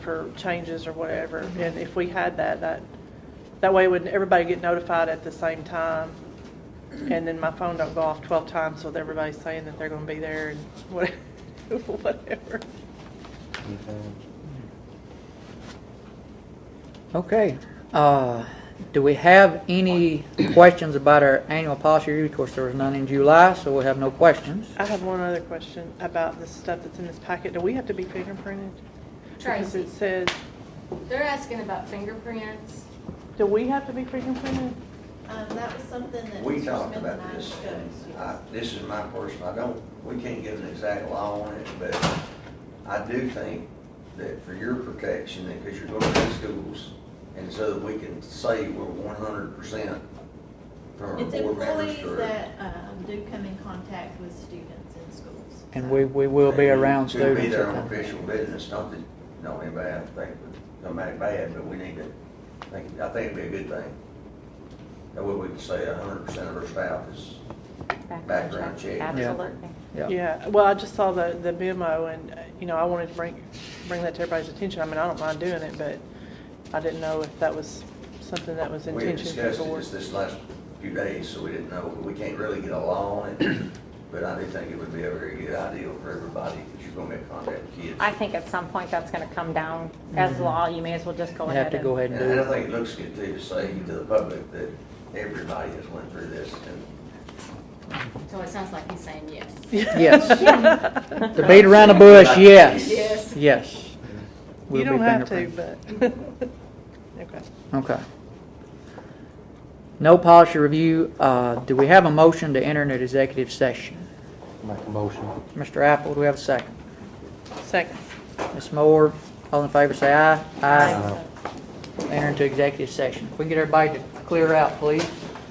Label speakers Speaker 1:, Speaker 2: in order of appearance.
Speaker 1: for changes or whatever. And if we had that, that, that way would everybody get notified at the same time? And then my phone don't go off twelve times with everybody saying that they're gonna be there and what- whatever.
Speaker 2: Okay, uh, do we have any questions about our annual policy review? Of course, there was none in July, so we'll have no questions.
Speaker 1: I have one other question about the stuff that's in this packet. Do we have to be fingerprinted? Because
Speaker 3: Tracy,
Speaker 1: it says,
Speaker 3: they're asking about fingerprints.
Speaker 1: do we have to be fingerprinted?
Speaker 4: Um, that was something that.
Speaker 5: We
Speaker 4: Mr.
Speaker 5: talked
Speaker 4: Smith and
Speaker 5: about
Speaker 4: I
Speaker 5: this, and
Speaker 4: discussed,
Speaker 5: I,
Speaker 4: yes.
Speaker 5: this is my person, I don't, we can't give an exact law on it, but I do think that for your protection, that, because you're going to schools, and so that we can say we're one hundred percent for our
Speaker 4: It's
Speaker 5: board members.
Speaker 4: employees
Speaker 5: or-
Speaker 4: that, um, do come in contact with students in schools.
Speaker 2: And we, we will be around
Speaker 5: Could be
Speaker 2: students.
Speaker 5: their
Speaker 2: at
Speaker 5: own
Speaker 2: that.
Speaker 5: official business, not that, not anybody I think would come back bad, but we need to, I think, I think it'd be a good thing. That way we can say hundred percent of our staff is Background check.
Speaker 6: Absolutely.
Speaker 2: Yeah,
Speaker 1: Yeah, well, I just saw the, the memo and, uh, you know, I wanted to bring, bring that to everybody's attention. I mean, I don't mind doing it, but I didn't know if that was something that was
Speaker 5: We had
Speaker 1: intention for the
Speaker 5: discussed it
Speaker 1: board.
Speaker 5: just this last few days, so we didn't know, but we can't really get a law on it. But I do think it would be a very good idea for everybody, because you're gonna be in contact with kids.
Speaker 6: I think at some point that's going to come down as law. You may as well just go
Speaker 2: Mm-hmm. you
Speaker 6: ahead.
Speaker 2: have to
Speaker 6: and-
Speaker 2: go ahead
Speaker 5: And
Speaker 2: and
Speaker 5: and
Speaker 2: do
Speaker 5: I
Speaker 2: it.
Speaker 5: think it looks good too, to say to the public that everybody has went through this, and
Speaker 3: So it sounds like he's saying yes.
Speaker 2: Yes. To beat around the bush, yes,
Speaker 3: Yes.
Speaker 2: yes.
Speaker 1: You
Speaker 2: We'll be
Speaker 1: don't have to,
Speaker 2: fingerprinted.
Speaker 1: but, okay.
Speaker 2: Okay. No policy review. Uh, Do we have a motion to enter into executive session?
Speaker 7: Make a motion.
Speaker 2: Mr. Apple, do we have a second?
Speaker 1: Second.
Speaker 2: Ms. Moore, all in favor, say aye.
Speaker 7: Aye.
Speaker 2: Enter into executive session. If we can get everybody to clear out, please.